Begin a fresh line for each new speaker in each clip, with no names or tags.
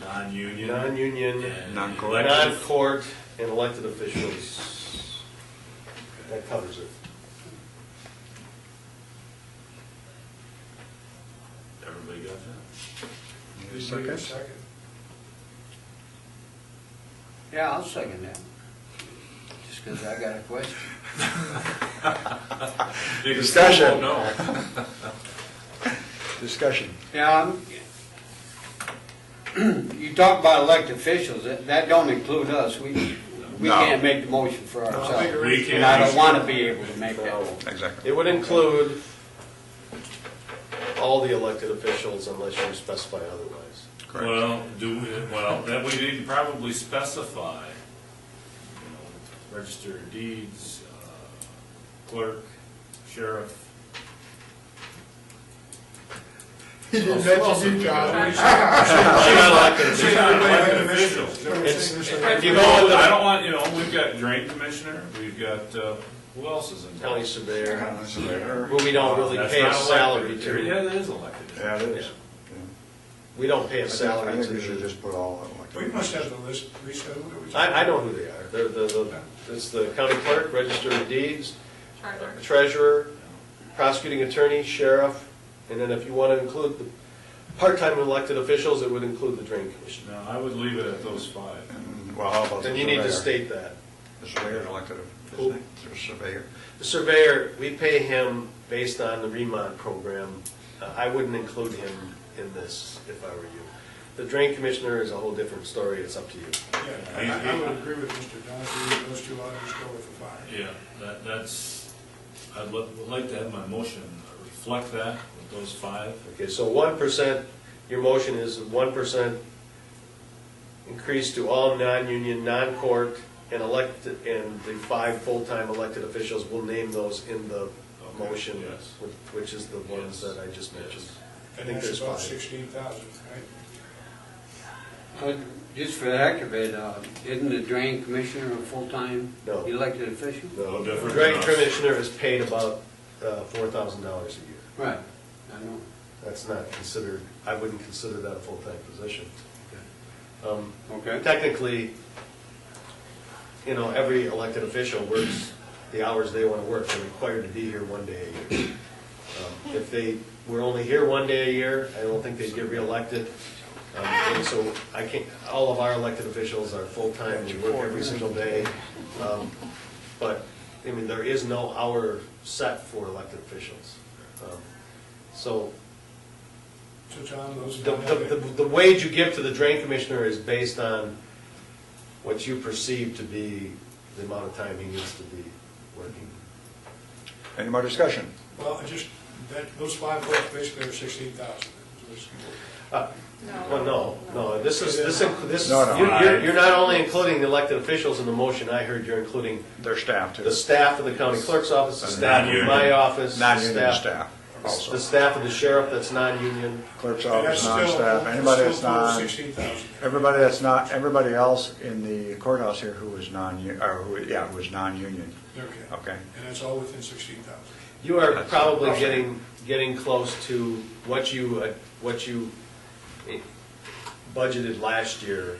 Non-union.
non-union,
and
Non-court.
elected-
non-court, and elected officials. That covers it.
Everybody got that?
Second?
Yeah, I'll second that. Just because I got a question.
Because
Discussion.
people won't know.
Discussion.
Yeah, I'm- you talk about elected officials, that that don't include us. We, we
No.
can't make the motion for ourselves.
We can.
And I don't want to be able to make that.
No.
one.
Exactly.
It would include all the elected officials unless you specify otherwise.
Correct.
Well, do, we? well, that we need to probably specify, you know, register of deeds, uh, clerk, sheriff.
He didn't
Well,
mention you, John.
They're not elected officials. They're not elected officials.
If
You
you
know,
go with
I
the
don't want, you know, we've got drain commissioner, we've got, uh, who else is in
county
town?
surveyor,
Yeah,
who we don't really
That's
pay a
not
salary
elected. Yeah,
to.
that is elected.
it is.
We don't pay a
I
salary
think we should
to.
just put all of them like that.
We must have the list, we said, what do we?
I, I know who they are. They're the, the, it's the county clerk, register of deeds, treasurer, prosecuting attorney, sheriff, and then if you want to include the part-time elected officials, it would include the drain commissioner.
No, I would leave it at those five.
Well, how about the surveyor?
Then you need to state that.
The surveyor's elected, isn't
Who?
he? The surveyor.
The surveyor, we pay him based on the remont program. Uh, I wouldn't include him in this if I were you. The drain commissioner is a whole different story, it's up to you.
Yeah, I I would agree with Mr. Donahue, those two others go with the five.
Yeah, that, that's, I'd li- would like to have my motion reflect that with those five.
Okay, so one percent, your motion is one percent increase to all non-union, non-court, and elected, and the five full-time elected officials, we'll name those in the motion,
yes.
wh- which is the ones
Yes,
that I just mentioned.
yes.
I
And
think
that's
there's
about
five.
sixteen thousand, right?
But Just for the heck of it, uh, isn't the drain commissioner a full-time
No.
elected official?
No,
No different
Drain
than us.
commissioner is paid about uh, four thousand dollars a year.
Right, I know.
That's not considered, I wouldn't consider that a full-time position. Um,
Okay.
Technically, you know, every elected official works the hours they want to work. They're required to be here one day a year. Um, If they were only here one day a year, I don't think they'd get reelected. Um, And so I can't, all of our elected officials are full-time, we work every single day. Um, But, I mean, there is no hour set for elected officials. Um, So
So John, those.
the, the, the- the wage you give to the drain commissioner is based on what you perceive to be the amount of time he needs to be working.
Any more discussion?
Well, I just, that, those five votes basically are sixteen thousand.
Uh, Well, no, no, this is, this, inc- this,
No, no.
you're, you're- you're not only including the elected officials in the motion, I heard you're including
Their staff too.
the staff of the county clerk's office, the staff of my
Non-union.
office, the
Non-union
staff,
staff
the
also.
staff of the sheriff that's non-union.
Clerk's office, non-staff, anybody that's non,
Sixteen thousand.
everybody that's not, everybody else in the courthouse here who was non, or who, yeah, who was non-union.
Okay.
Okay.
And that's all within sixteen thousand.
You are probably getting, getting close to what you, uh, what you eh, budgeted last year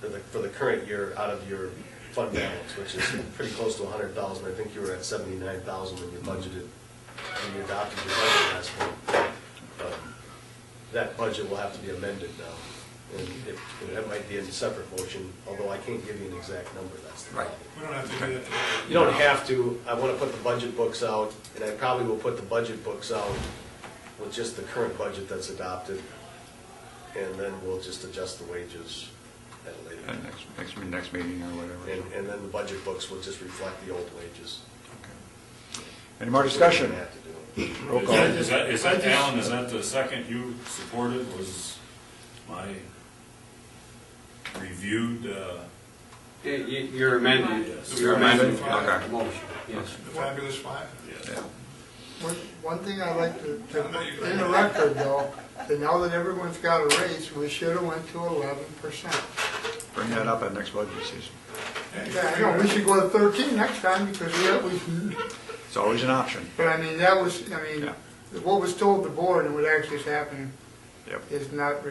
for the, for the current year out of your fund balance, which is pretty close to a hundred thousand. I think you were at seventy-nine thousand when you budgeted, when you adopted your budget last month. Um, That budget will have to be amended now, and it, and that might be in a separate motion, although I can't give you an exact number, that's the problem.
Right.
We don't have to do that today.
You don't have to, I want to put the budget books out, and I probably will put the budget books out with just the current budget that's adopted, and then we'll just adjust the wages at a later.
And
time.
Uh, next, next, me- next meeting or whatever.
And, and then the budget books will just reflect the old wages.
Any more discussion?
We have to do it.
Roll
Is
call.
that- Is that, is that, Alan, is that the second you supported was my reviewed, uh,
Y- y- You're amending,
Yes.
you're amending
Okay.
the motion, yes.
The fabulous five.
yes.
Yeah.
What,
One thing I'd like to, to- in the record though, that now that everyone's got a raise, we should have went to eleven percent.
Bring that up at next budget season.
Yeah, I know, we should go to thirteen next time because we, have- we,
It's always an option.
but I mean, that was, I mean,
Yeah.
what was told the board and what actually is happening
Yep.
is not